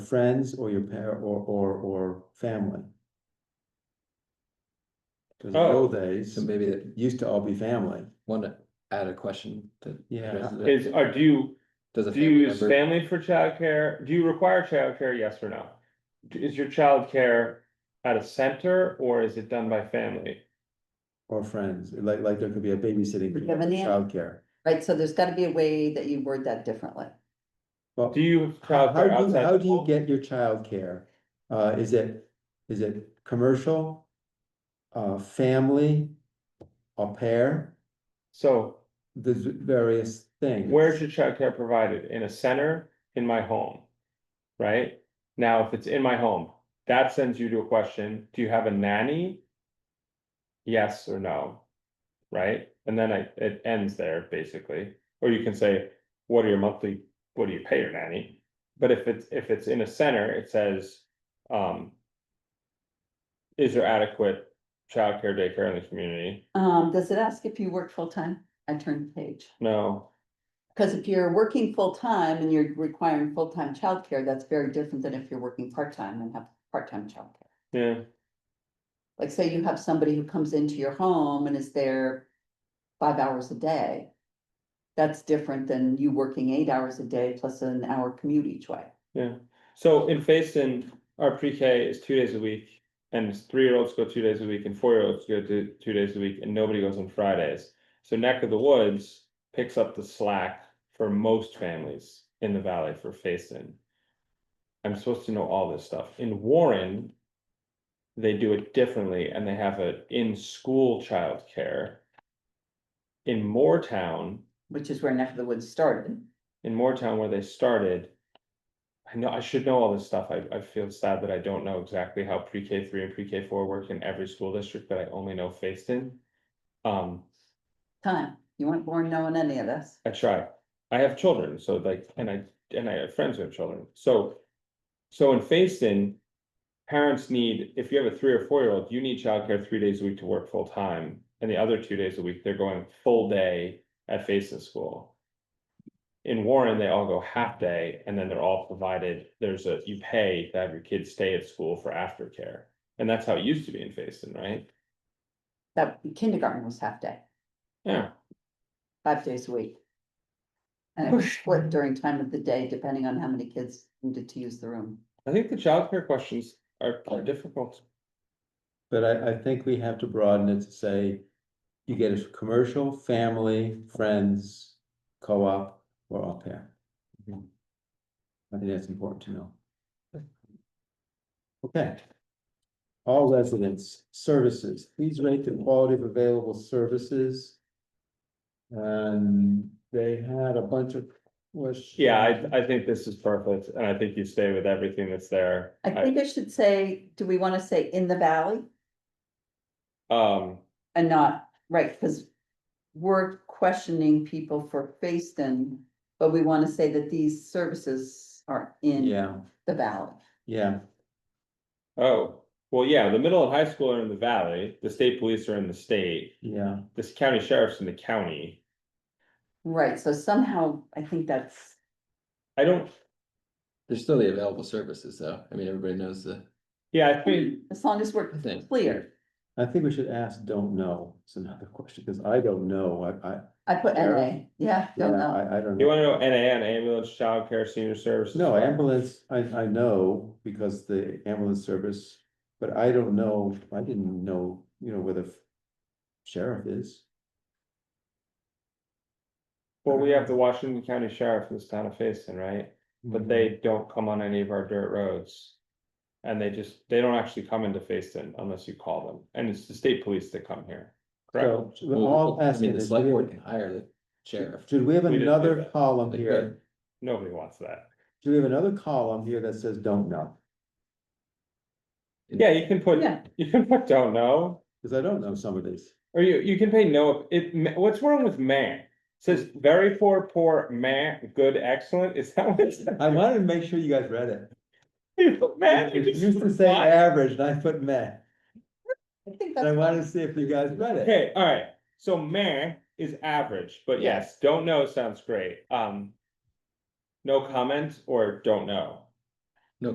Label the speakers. Speaker 1: friends or your par, or, or, or family. Cause in the
Speaker 2: Oh.
Speaker 1: old days,
Speaker 3: So maybe that,
Speaker 1: used to all be family,
Speaker 3: want to add a question to.
Speaker 1: Yeah.
Speaker 3: resident-
Speaker 2: Is, are, do you,
Speaker 3: Does a
Speaker 2: do you
Speaker 3: family
Speaker 2: use
Speaker 3: member,
Speaker 2: family for childcare? Do you require childcare? Yes or no? D- Is your childcare at a center or is it done by family?
Speaker 1: or friends, like, like there could be a babysitting.
Speaker 4: We have a
Speaker 1: or
Speaker 4: nanny.
Speaker 1: Childcare.
Speaker 4: Right, so there's gotta be a way that you word that differently.
Speaker 1: Well,
Speaker 2: Do you have
Speaker 1: how, how
Speaker 2: childcare
Speaker 1: do you,
Speaker 2: outside?
Speaker 1: how
Speaker 2: the
Speaker 1: do you
Speaker 2: home?
Speaker 1: get your childcare? Uh, is it, is it commercial? Uh, family? Au pair?
Speaker 2: So
Speaker 1: There's various things.
Speaker 2: where's your childcare provided? In a center, in my home? Right? Now, if it's in my home, that sends you to a question, do you have a nanny? Yes or no? Right? And then I, it ends there basically, or you can say, what are your monthly, what do you pay your nanny? But if it's, if it's in a center, it says, um. Is there adequate childcare daycare in the community?
Speaker 4: Um, does it ask if you work full-time? I turned the page.
Speaker 2: No,
Speaker 4: Cause if you're working full-time and you're requiring full-time childcare, that's very different than if you're working part-time and have part-time childcare.
Speaker 2: yeah,
Speaker 4: Like, say you have somebody who comes into your home and is there five hours a day. That's different than you working eight hours a day plus an hour commute each way.
Speaker 2: So in Facein, our pre-K is two days a week, and three-year-olds go two days a week, and four-year-olds go to two days a week, and nobody goes on Fridays. So Neck of the Woods picks up the slack for most families in the valley for Facein. I'm supposed to know all this stuff. In Warren, they do it differently, and they have a in-school childcare. In Moortown,
Speaker 4: Which is where Neck of the Woods started.
Speaker 2: in Moortown where they started. I know, I should know all this stuff. I, I feel sad that I don't know exactly how pre-K three and pre-K four work in every school district, but I only know Facein. Um,
Speaker 4: Time, you weren't born knowing any of this.
Speaker 2: I try. I have children, so like, and I, and I have friends who have children, so. So in Facein, parents need, if you have a three or four year old, you need childcare three days a week to work full time. And the other two days a week, they're going full day at Facein school. In Warren, they all go half day and then they're all provided, there's a, you pay to have your kids stay at school for aftercare. And that's how it used to be in Facein, right?
Speaker 4: That kindergarten was half day.
Speaker 2: Yeah,
Speaker 4: five days a week. And it was split during time of the day, depending on how many kids needed to use the room.
Speaker 2: I think the childcare questions are are difficult.
Speaker 1: But I, I think we have to broaden it to say, you get a commercial, family, friends, co-op, or au pair.
Speaker 2: Mhm.
Speaker 1: I think that's important to know. Okay. All residents, services, please rate the quality of available services. And they had a bunch of questions.
Speaker 2: Yeah, I, I think this is perfect, and I think you stay with everything that's there.
Speaker 4: I think I should say, do we want to say in the valley
Speaker 2: Um,
Speaker 4: and not, right, because we're questioning people for Facein, but we want to say that these services are in
Speaker 1: Yeah,
Speaker 4: the valley.
Speaker 1: yeah,
Speaker 2: oh, well, yeah, the middle and high school are in the valley, the state police are in the state,
Speaker 1: yeah,
Speaker 2: this county sheriff's in the county.
Speaker 4: Right, so somehow I think that's,
Speaker 2: I don't,
Speaker 3: there's still the available services though, I mean, everybody knows the
Speaker 2: yeah, I think,
Speaker 4: as long as we're
Speaker 3: I think-
Speaker 4: clear,
Speaker 1: I think we should ask, don't know, it's another question, because I don't know, I, I,
Speaker 4: I put NA, yeah, don't
Speaker 1: Yeah,
Speaker 4: know.
Speaker 1: I, I don't
Speaker 2: you
Speaker 1: know.
Speaker 2: wanna know NA on ambulance, childcare, senior services?
Speaker 1: No, ambulance, I, I know because the ambulance service, but I don't know, I didn't know, you know, where the sheriff is.
Speaker 2: Well, we have the Washington County Sheriff in this town of Facein, right? But they
Speaker 1: Mm-hmm.
Speaker 2: don't come on any of our dirt roads. And they just, they don't actually come into Facein unless you call them, and it's the state police that come here. correct?
Speaker 1: So, we're
Speaker 3: Well,
Speaker 1: all
Speaker 3: I mean,
Speaker 1: asking
Speaker 3: the
Speaker 1: is,
Speaker 3: select board can
Speaker 1: do
Speaker 3: hire the sheriff.
Speaker 1: we- should we have
Speaker 2: We didn't do
Speaker 1: another
Speaker 2: that.
Speaker 1: column
Speaker 3: They
Speaker 1: here?
Speaker 2: Nobody wants that.
Speaker 1: Do we have another column here that says don't know?
Speaker 2: Yeah, you can put,
Speaker 4: Yeah.
Speaker 2: you can put don't know.
Speaker 1: Because I don't know some of these.
Speaker 2: Or you, you can pay no, it, ma- what's wrong with man? It Says very poor, poor, man, good, excellent, is that what? it's-
Speaker 1: I wanted to make sure you guys read it.
Speaker 2: You put man, you
Speaker 1: It
Speaker 2: just
Speaker 1: used to
Speaker 2: put
Speaker 1: say
Speaker 2: man.
Speaker 1: average and I put meh,
Speaker 4: I think
Speaker 1: and I
Speaker 4: that's
Speaker 1: wanted to see if you guys read it.
Speaker 2: Okay, alright, so man is average, but yes, don't know sounds great, um. No comment or don't know,